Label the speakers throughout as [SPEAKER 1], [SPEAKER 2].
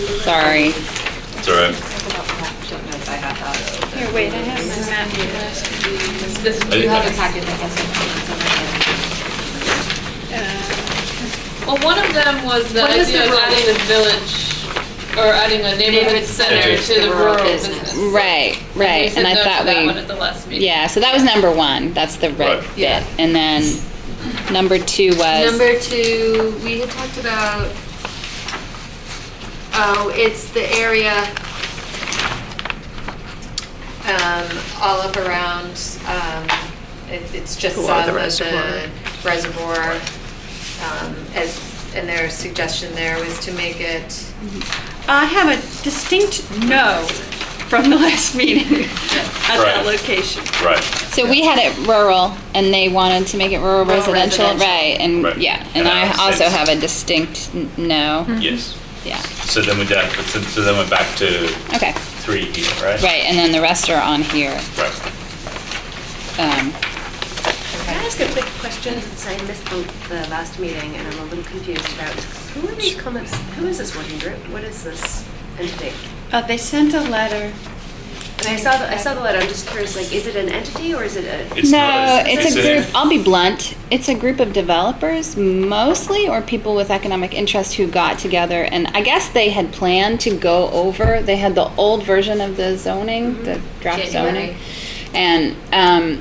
[SPEAKER 1] Sorry.
[SPEAKER 2] It's all right.
[SPEAKER 3] Don't know if I have that.
[SPEAKER 4] Here, wait, I have my map here.
[SPEAKER 3] This,
[SPEAKER 2] I-
[SPEAKER 3] you have a packet that has some.
[SPEAKER 5] Well, one of them was the
[SPEAKER 3] What is
[SPEAKER 5] idea
[SPEAKER 3] the
[SPEAKER 5] of
[SPEAKER 3] rural-
[SPEAKER 5] adding a village, or adding a neighborhood
[SPEAKER 3] Neighborhood
[SPEAKER 5] center
[SPEAKER 2] center
[SPEAKER 5] to the rural business.
[SPEAKER 1] Right,
[SPEAKER 5] We
[SPEAKER 1] right.
[SPEAKER 5] said
[SPEAKER 1] And I
[SPEAKER 5] no to
[SPEAKER 1] thought
[SPEAKER 5] that one
[SPEAKER 1] we,
[SPEAKER 5] at the last meeting.
[SPEAKER 1] yeah, so that was number one. That's the red
[SPEAKER 2] Right.
[SPEAKER 1] bit. And then number two was,
[SPEAKER 3] Number two, we had talked about, oh, it's the area um, all up around, um, it- it's just
[SPEAKER 6] Along
[SPEAKER 3] south
[SPEAKER 6] the
[SPEAKER 3] of the reservoir. um, as- And their suggestion there was to make it,
[SPEAKER 4] I have a distinct no from the last meeting at that
[SPEAKER 2] Right.
[SPEAKER 4] location.
[SPEAKER 2] Right.
[SPEAKER 1] so we had it rural and they wanted to make it rural
[SPEAKER 3] Rural
[SPEAKER 1] residential.
[SPEAKER 3] residential.
[SPEAKER 1] Right, and
[SPEAKER 2] Right.
[SPEAKER 1] yeah, and
[SPEAKER 2] And I
[SPEAKER 1] I
[SPEAKER 2] have
[SPEAKER 1] also
[SPEAKER 2] six.
[SPEAKER 1] have a distinct n-
[SPEAKER 5] Hmm.
[SPEAKER 1] no.
[SPEAKER 2] Yes.
[SPEAKER 1] Yeah,
[SPEAKER 2] So then we down. So, so then we're back to
[SPEAKER 1] okay.
[SPEAKER 2] three here, right?
[SPEAKER 1] Right, and then the rest are on here.
[SPEAKER 2] Right.
[SPEAKER 1] Um,
[SPEAKER 7] Can I ask a quick question, since I missed the the last meeting and I'm a little confused about, who are these comments, who is this working group? What is this entity?
[SPEAKER 4] Uh, They sent a letter.
[SPEAKER 7] And I saw, the I saw the letter, I'm just curious, like, is it an entity or is it a?
[SPEAKER 2] It's
[SPEAKER 1] No,
[SPEAKER 2] not a-
[SPEAKER 1] it's
[SPEAKER 2] it's
[SPEAKER 1] a
[SPEAKER 2] a-
[SPEAKER 1] group, I'll be blunt, it's a group of developers mostly, or people with economic interest who got together, and I guess they had planned to go over, they had the old version of the zoning, the draft zoning.
[SPEAKER 3] January.
[SPEAKER 1] And, um,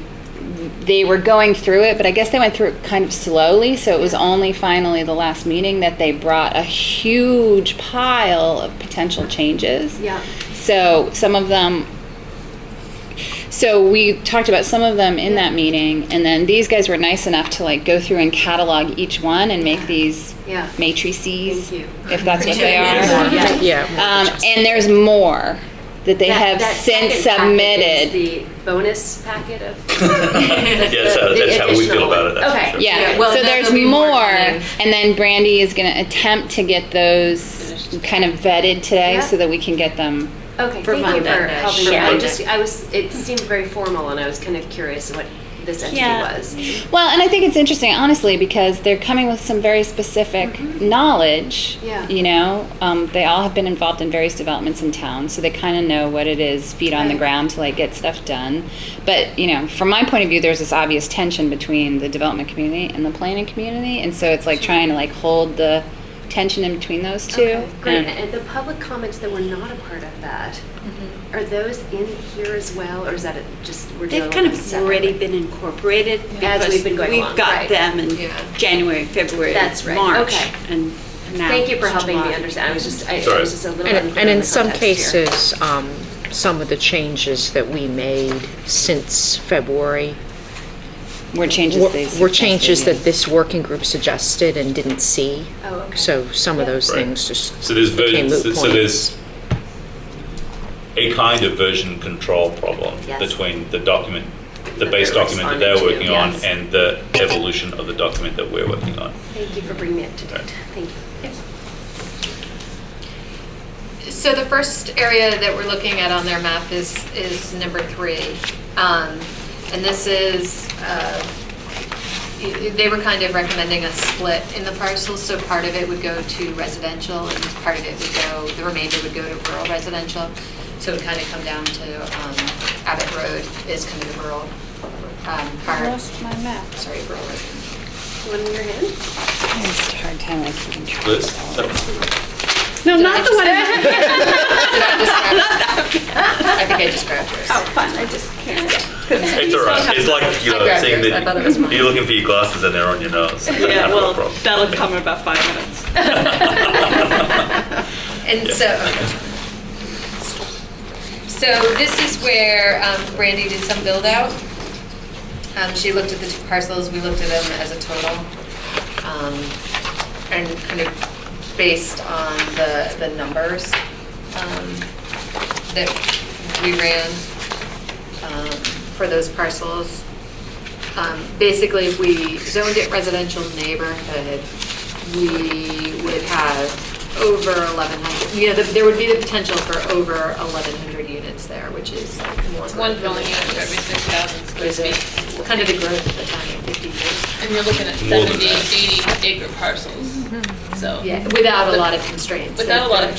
[SPEAKER 1] they were going through it, but I guess they went through it kind of slowly, so it was only finally the last meeting that they brought a huge pile of potential changes.
[SPEAKER 7] Yeah.
[SPEAKER 1] So some of them so we talked about some of them in that meeting, and then these guys were nice enough to like go through and catalog each one and make these
[SPEAKER 7] Yeah.
[SPEAKER 1] matrices,
[SPEAKER 7] Thank you.
[SPEAKER 1] if that's what they
[SPEAKER 7] Yeah.
[SPEAKER 1] are.
[SPEAKER 7] Yeah.
[SPEAKER 1] Um, and there's more that they
[SPEAKER 7] That-
[SPEAKER 1] have
[SPEAKER 7] that
[SPEAKER 1] since
[SPEAKER 7] second packet is
[SPEAKER 1] submitted.
[SPEAKER 7] The bonus packet of?
[SPEAKER 2] Yeah, that's how,
[SPEAKER 7] the- the
[SPEAKER 2] that's how we feel
[SPEAKER 7] additional
[SPEAKER 2] about it.
[SPEAKER 7] one.
[SPEAKER 2] That's for
[SPEAKER 7] Okay.
[SPEAKER 2] sure.
[SPEAKER 1] Yeah,
[SPEAKER 3] Yeah, well,
[SPEAKER 1] so
[SPEAKER 3] and then
[SPEAKER 1] there's
[SPEAKER 3] there'll be more
[SPEAKER 1] more,
[SPEAKER 3] coming.
[SPEAKER 1] and then Brandy is going to attempt to get those kind of vetted today
[SPEAKER 7] Yeah.
[SPEAKER 1] so that we can get them.
[SPEAKER 7] Okay, thank you
[SPEAKER 3] Monday.
[SPEAKER 7] for helping me.
[SPEAKER 3] Sure.
[SPEAKER 7] I just, I was, it seemed very formal and I was kind of curious what this entity
[SPEAKER 4] Yeah.
[SPEAKER 7] was.
[SPEAKER 1] Well, and I think it's interesting, honestly, because they're coming with some very specific knowledge.
[SPEAKER 7] Mm-hmm. Yeah.
[SPEAKER 1] You know, um, they all have been involved in various developments in town, so they kind of know what it is, feet on the
[SPEAKER 7] Right.
[SPEAKER 1] ground to like get stuff done. But you know, from my point of view, there's this obvious tension between the development community and the planning community, and so it's like trying to like hold the tension in between those two.
[SPEAKER 7] Okay, Great,
[SPEAKER 1] And-
[SPEAKER 7] and the public comments that were not a part of that,
[SPEAKER 6] Mm-hmm.
[SPEAKER 7] are those in here as well, or is that it just, we're dealing
[SPEAKER 4] They've
[SPEAKER 7] with
[SPEAKER 4] kind
[SPEAKER 7] them
[SPEAKER 4] of
[SPEAKER 7] separately?
[SPEAKER 4] already been incorporated
[SPEAKER 7] As
[SPEAKER 4] because
[SPEAKER 7] we've been going
[SPEAKER 4] we've
[SPEAKER 7] along,
[SPEAKER 4] got
[SPEAKER 7] right.
[SPEAKER 4] them in
[SPEAKER 3] Yeah.
[SPEAKER 4] January, February,
[SPEAKER 7] That's right,
[SPEAKER 4] March,
[SPEAKER 7] okay.
[SPEAKER 4] and now
[SPEAKER 7] Thank you for
[SPEAKER 4] it's
[SPEAKER 7] helping me
[SPEAKER 4] July.
[SPEAKER 7] understand, I was just, I I
[SPEAKER 2] Sorry.
[SPEAKER 7] was just a little unclear on
[SPEAKER 6] And and in
[SPEAKER 7] the
[SPEAKER 6] some
[SPEAKER 7] context here.
[SPEAKER 6] cases, um, some of the changes that we made since February
[SPEAKER 1] Were changes
[SPEAKER 6] were-
[SPEAKER 1] they
[SPEAKER 6] were
[SPEAKER 1] suggested,
[SPEAKER 6] changes
[SPEAKER 1] yeah.
[SPEAKER 6] that this working group suggested and didn't see.
[SPEAKER 7] Oh, okay.
[SPEAKER 6] So some of those
[SPEAKER 2] Right.
[SPEAKER 6] things just
[SPEAKER 2] So there's version,
[SPEAKER 6] became moot
[SPEAKER 2] so
[SPEAKER 6] points.
[SPEAKER 2] so there's a kind of version control problem
[SPEAKER 7] Yes.
[SPEAKER 2] between the document, the
[SPEAKER 7] That
[SPEAKER 2] base
[SPEAKER 7] they're
[SPEAKER 2] document that they're
[SPEAKER 7] responding
[SPEAKER 2] working
[SPEAKER 7] to,
[SPEAKER 2] on
[SPEAKER 7] yes.
[SPEAKER 2] and the evolution of the document that we're working on.
[SPEAKER 7] Thank you for bringing me up to date, thank you.
[SPEAKER 3] So the first area that we're looking at on their map is, is number three. Um, And this is, uh, y- they were kind of recommending a split in the parcels, so part of it would go to residential and part of it would go, the remainder would go to rural residential. So it would kind of come down to um, Abbott Road is kind of the rural um,
[SPEAKER 4] I
[SPEAKER 3] part,
[SPEAKER 4] lost my map.
[SPEAKER 3] sorry, rural residential.
[SPEAKER 7] One in your hand?
[SPEAKER 1] I had a hard time like keeping track.
[SPEAKER 2] Liz?
[SPEAKER 1] of all
[SPEAKER 2] So-
[SPEAKER 1] of it.
[SPEAKER 4] No,
[SPEAKER 3] Did I
[SPEAKER 4] not the
[SPEAKER 3] just-
[SPEAKER 4] one.
[SPEAKER 3] Did I just grab- I think I just grabbed yours.
[SPEAKER 4] Oh, fun, I just can't.
[SPEAKER 2] It's all right. It's like, you
[SPEAKER 3] I
[SPEAKER 2] know,
[SPEAKER 3] grabbed
[SPEAKER 2] saying
[SPEAKER 3] yours. I thought it was
[SPEAKER 2] that
[SPEAKER 3] mine.
[SPEAKER 2] you're looking for your glasses and they're on your nose.
[SPEAKER 4] Yeah,
[SPEAKER 2] That's
[SPEAKER 4] well,
[SPEAKER 2] a problem.
[SPEAKER 4] that'll come in about five minutes.
[SPEAKER 3] And so, so this is where um, Brandy did some build out. Um, She looked at the two parcels, we looked at them as a total. um, And kind of based on the, the numbers um, that we ran um, for those parcels. Um, Basically, if we zoned it residential neighborhood, we would have over 1,100, you know, there- there would be the potential for over 1,100 units there, which is more.
[SPEAKER 5] It's one dwelling unit for every 6,000 square
[SPEAKER 3] Was it
[SPEAKER 5] feet.
[SPEAKER 3] kind of the growth of the town in 50 years?
[SPEAKER 5] And you're looking at
[SPEAKER 2] More than
[SPEAKER 5] 70, 80 acre parcels, so.
[SPEAKER 3] Yeah, without a lot of constraints.
[SPEAKER 5] Without a lot of